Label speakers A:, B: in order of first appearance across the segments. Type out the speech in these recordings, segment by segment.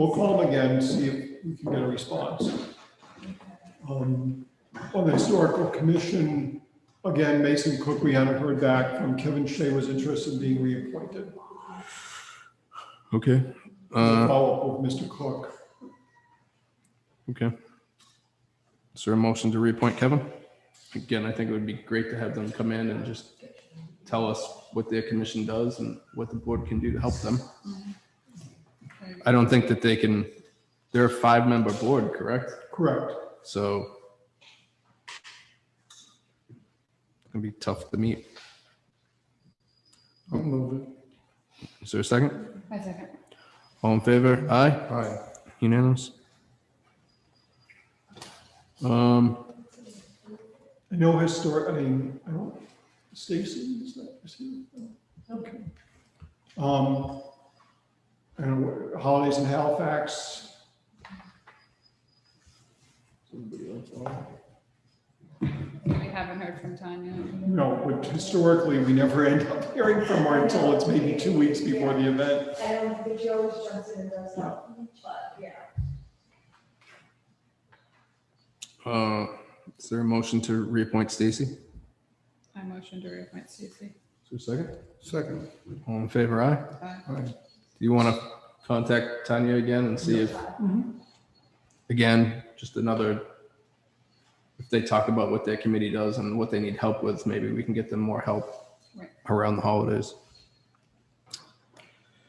A: We'll call them again, see if we can get a response. Um, On the historical commission, again, Mason Cook, we hadn't heard back from Kevin Shea was interested in being reappointed.
B: Okay. Uh,
A: Follow up with Mr. Cook.
B: okay. Is there a motion to reappoint Kevin? Again, I think it would be great to have them come in and just tell us what their commission does and what the board can do to help them. I don't think that they can, they're a five-member board, correct?
A: Correct.
B: So it's gonna be tough to meet.
C: I'll move it.
B: Is there a second?
D: My second.
B: All in favor? Aye?
C: Aye.
B: Unanimous? Um,
A: I know historic, I mean, I don't, Stacy, is that, is he? uh, Okay. Um, and holidays in Halifax.
C: Somebody else on?
D: We haven't heard from Tanya.
A: No, but historically, we never end up hearing from her until it's maybe two weeks before the event.
E: I don't think she always jumps in and does that, "Mm, but yeah.
B: Uh, Is there a motion to reappoint Stacy? Is
D: I motion to reappoint Stacy.
B: there a second?
C: Second.
B: All in favor, aye? Do
D: Aye.
B: you want to contact Tanya again and see if, again, just another, if they talk about what their committee does and what they need help with, maybe we can get them more help
D: Right.
B: around the holidays.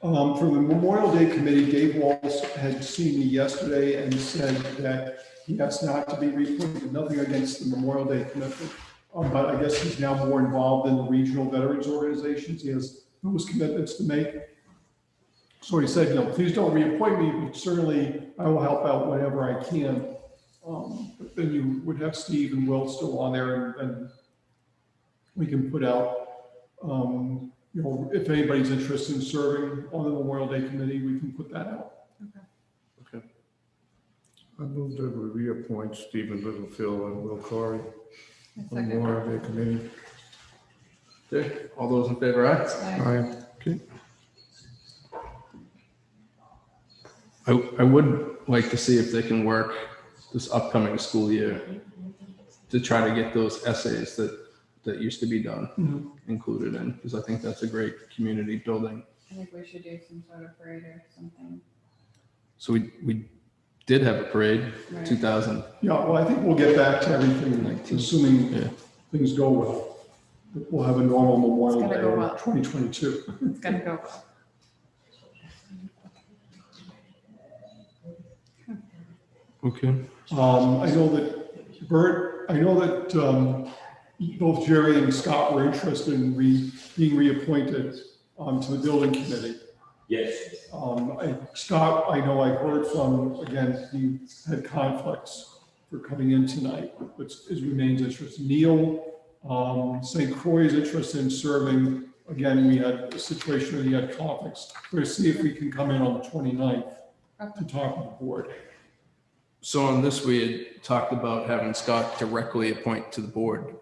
A: Um, for the Memorial Day Committee, Dave Walls had seen me yesterday and said that he has not to be reappointed, nothing against the Memorial Day commitment. Um, but I guess he's now more involved in the regional veterans organizations. He has those commitments to make. So he said, you know, please don't reappoint me, but certainly I will help out whenever I can. Um, but then you would have Steve and Will still on there and, and we can put out, um, you know, if anybody's interested in serving on the Memorial Day Committee, we can put that out.
C: I move that we reappoint Stephen Littlefield and Will Corey
D: My
C: on the
D: second.
C: Memorial Day Committee.
B: Okay, all those in favor, aye?
D: Aye.
C: Aye.
B: I, I would like to see if they can work this upcoming school year to try to get those essays that, that used to be
A: Mhm.
B: done included in, because I think that's a great community building.
D: I think we should do some sort of parade or something.
B: So we, we did have a parade,
D: Right.
B: two thousand,
A: Yeah, well, I think we'll get back to everything,
B: Nineteen. Yeah.
A: assuming things go well. We'll have a normal Memorial
D: It's gonna go
A: Day
D: well.
A: twenty twenty-two.
D: It's gonna go well.
B: okay.
A: Um, I know that Bert, I know that, um, both Jerry and Scott were interested in re, being reappointed, um, to the building committee.
F: Yes,
A: Um, I, Scott, I know I heard from, again, he had conflicts for coming in tonight, but is remains interested. Neil, um, St. Croix is interested in serving. Again, we had a situation where he had conflicts. We're gonna see if we can come in on the 29th to talk with the board.
B: So on this, we had talked about having Scott directly appoint to the board.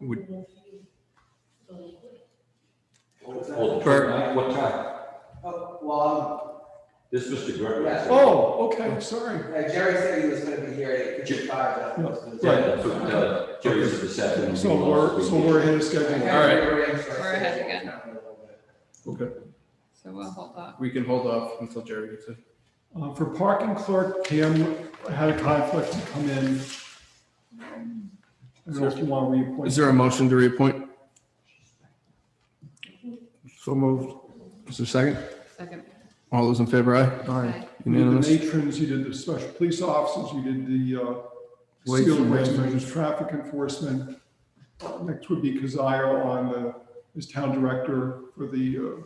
B: Would,
F: Well,
B: Bert.
F: tonight, what time?
G: Oh, well,
F: This is Mr. Gregory.
G: Yeah.
A: Oh, okay, sorry.
G: um, uh, Jerry said he was gonna be here at eight fifty-five. that was the-
F: Yeah, that's what, uh, Jerry said this afternoon.
A: Oh. So we're, so we're ahead of
G: I kinda
A: schedule.
B: right.
G: rearranged my
D: We're ahead
G: schedule
D: again.
G: a little bit.
D: So we'll hold off.
B: we can hold off until Jerry gets it.
A: Uh, For parking clerk, Pam had a conflict to come in. I don't know if you want to reappoint.
B: Is there a motion to reappoint?
C: So moved.
B: Is there a second?
D: Second.
B: All those in favor, aye?
C: Aye.
A: You did the
B: Unanimous?
A: matrons, you did the special police officers, you did the uh,
C: Wait,
A: skilled
C: wait.
A: wages, traffic enforcement. Uh, Next would be Kazire on the, as town director for the uh,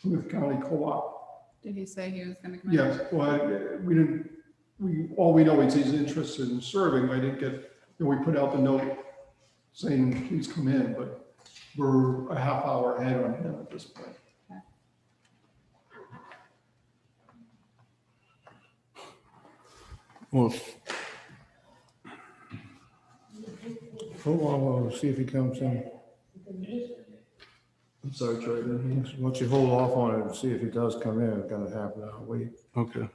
A: Plymouth County Co-op.
D: Did he say he was gonna come in?
A: Yes, well, I- we didn't, we, all we know is he's interested in serving. I didn't get, you know, we put out the note saying, please come in, but we're a half hour ahead on him at this point.
B: Well,
C: Hold on, we'll see if he comes in.
B: I'm sorry, Troy.
C: Once you hold off on it and see if he does come in, it's gonna happen, I'll wait.
B: Okay.